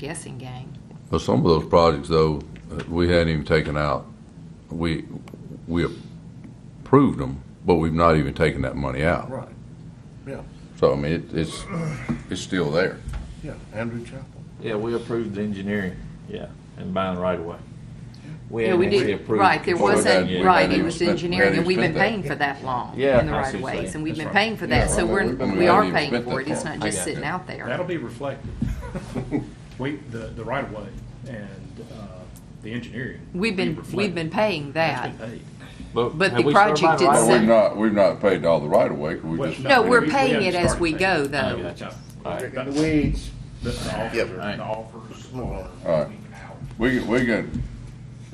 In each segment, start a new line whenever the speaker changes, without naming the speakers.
guessing game.
Well, some of those projects, though, uh, we hadn't even taken out, we, we approved them, but we've not even taken that money out.
Right, yeah,
So, I mean, it- it's, it's still there.
yeah, Andrew Chapel.
Yeah, we approved the engineering, yeah, and buying right away.
Yeah, we
hadn't actually
did,
approved
right, there
before that
wasn't,
yet.
right,
Hadn't
it
even
was
spent-
engineering,
hadn't
and we've
even
been paying
spent
for that long
Yeah,
in the
I
right
see
of
what you're
ways,
saying.
and we've
That's
been
right.
paying for
Yeah,
that, so
well,
we're,
we've been-
we
we
are
haven't even
paying
spent
for it,
that
it's
far.
not just
I got
sitting
you.
out there.
That'll be reflected. We, the, the right of way and, uh, the engineering.
We've
will be
been, we've been
reflected.
paying that.
That's been paid.
But
have
the
we started
project
buying right
itself-
Well,
away?
we've not, we've not paid all the right of way, 'cause we
Well,
just.
No, we're
we- we
paying
haven't
it as
started
we
paying.
go,
I
though.
got you. All right.
In the weeds.
The, the
Yep.
offers,
Right.
the offers
All
are.
right. We, can- we can,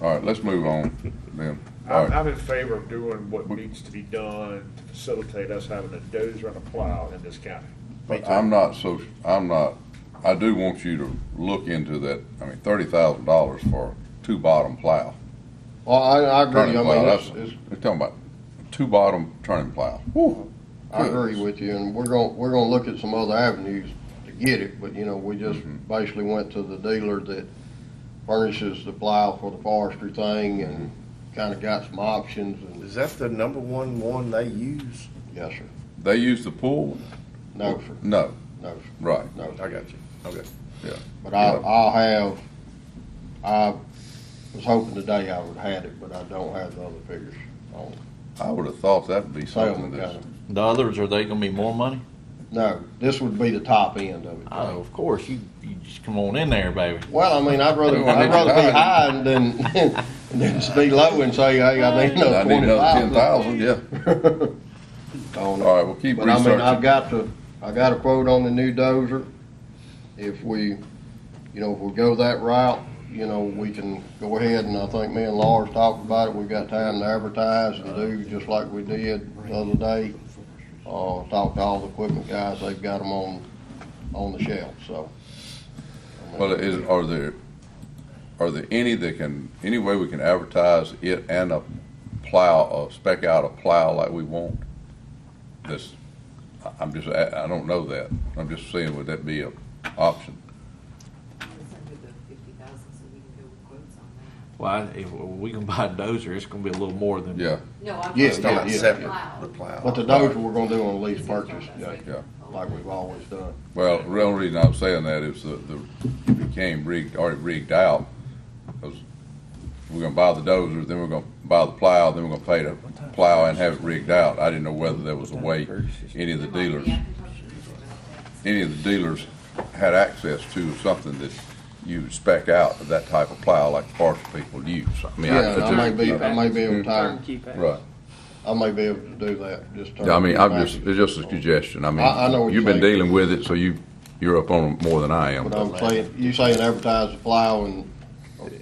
all right, let's move on then. All
I'm,
right,
I'm in favor of doing what needs to be done to facilitate us having a dozer and a plow in this county.
but I'm not so, I'm not, I do want you to look into that, I mean, thirty thousand dollars for two bottom plow.
Well, I, I
Turning
agree, I
plow,
mean,
that's,
it's, it's,
we're talking about two bottom turning plow.
I agree with you, and we're gonna, we're gonna look at some other avenues to get it, but, you know, we just
Mm-hmm.
basically went to the dealer that furnishes the plow for the forestry thing and
Mm-hmm.
kinda got some options, and,
Is that the number one one they use?
yes, sir.
They use the pool?
No, sir,
No,
no, sir,
right.
no, sir.
I got you. Okay.
But I, I'll have, I was hoping today I would have had it, but I don't have the other figures on
I would have thought that'd be something
Salem
that's,
County.
The others, are they gonna be more money?
No, this would be the top end of it.
Oh, of course, you, you just come on in there, baby.
Well, I mean, I'd rather,
Everyone
I'd
needs
rather be
to
high and then, than just be low and say, hey, I need
I
another
need
twenty
another ten
thousand.
thousand, yeah.
All
All right, we'll keep
But I mean,
researching.
I've got to, I got a quote on the new dozer. If we, you know, if we go that route, you know, we can go ahead and I think me and Lars talked about it. We've got time to advertise and do just like we did the other day. Uh, talked to all the equipment guys, they've got them on, on the shelf, so.
Well, is, are there, are there any that can, any way we can advertise it and a plow, a spec out a plow like we want? This, I- I'm just, I, I don't know that. I'm just saying, would that be a option?
Well, I- if we can buy a dozer, it's gonna be a little more than.
Yeah,
No, I'm.
Yeah,
It's not
yeah.
separate, the plow.
But the dozer we're gonna do on lease purchase, yeah,
yeah.
like we've always done.
Well, the real reason I'm saying that is the, the, it became rigged, already rigged out. Because we're gonna buy the dozer, then we're gonna buy the plow, then we're gonna pay to plow and have it rigged out. I didn't know whether there was a way any of the dealers, any of the dealers had access to something that you would spec out of that type of plow like forestry people use. I mean,
Yeah, and I may
I,
be, I may be able to,
Turnkey package.
right.
I may be able to do that, just.
Yeah, I mean, I'm
turnkey
just,
package.
it's just a suggestion. I
I- I know
mean,
what
you've
you're
been
saying.
dealing with it, so you, you're up on it more than I am.
But I'm saying, you saying advertise the plow and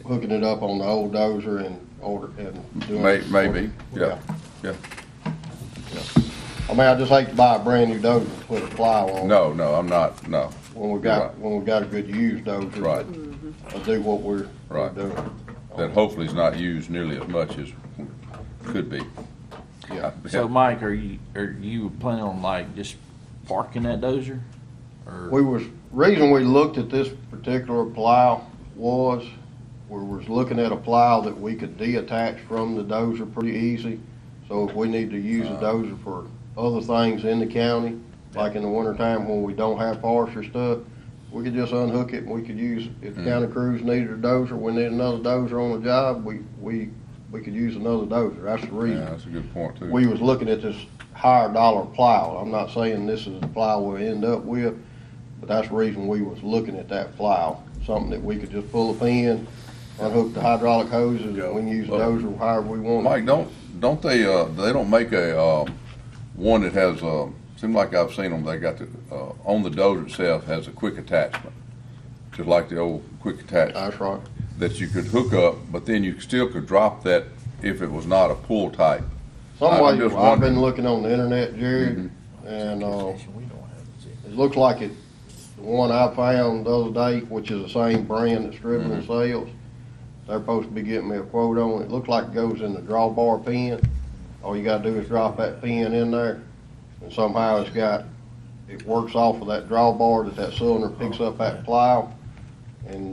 hooking it up on the old dozer and order, and doing.
May, maybe, yeah, yeah.
I mean, I just hate to buy a brand new dozer and put a plow on.
No, no, I'm not, no,
When we
You're right.
got, when we got a good used dozer.
right.
but I do what we're, we're
Right.
doing.
That hopefully is not used nearly as much as could be.
Yeah.
So, Mike, are you, are you planning on like just parking that dozer? Or,
We was, reason we looked at this particular plow was, we was looking at a plow that we could detach from the dozer pretty easy. So if we need to use the dozer for other things in the county, like in the wintertime when we don't have forestry stuff, we could just unhook it and we could use, if the county crews needed a dozer, we need another dozer on the job, we, we, we could use another dozer. That's the
Yeah,
reason
that's a good point too.
we was looking at this higher dollar plow. I'm not saying this is the plow we'll end up with, but that's the reason we was looking at that plow. Something that we could just pull a pin, unhook the hydraulic hoses, and we can use the dozer however we want.
Mike, don't, don't they, uh, they don't make a, uh, one that has, uh, seemed like I've seen them, they got the, uh, on the dozer itself has a quick attachment. Just like the old quick attachment
That's right.
that you could hook up, but then you still could drop that if it was not a pull type.
Some
I'm
way,
just Mm-hmm.
I've
wondering.
been looking on the internet, Jerry, and, uh, it looked like it, the one I found the other day, which is the same brand that Striblin sells, they're supposed to be getting me a quote on it. It looked like it goes in the drawbar pin. All you gotta do is drop that pin in there, and somehow it's got, it works off of that drawbar that that cylinder picks up that plow, and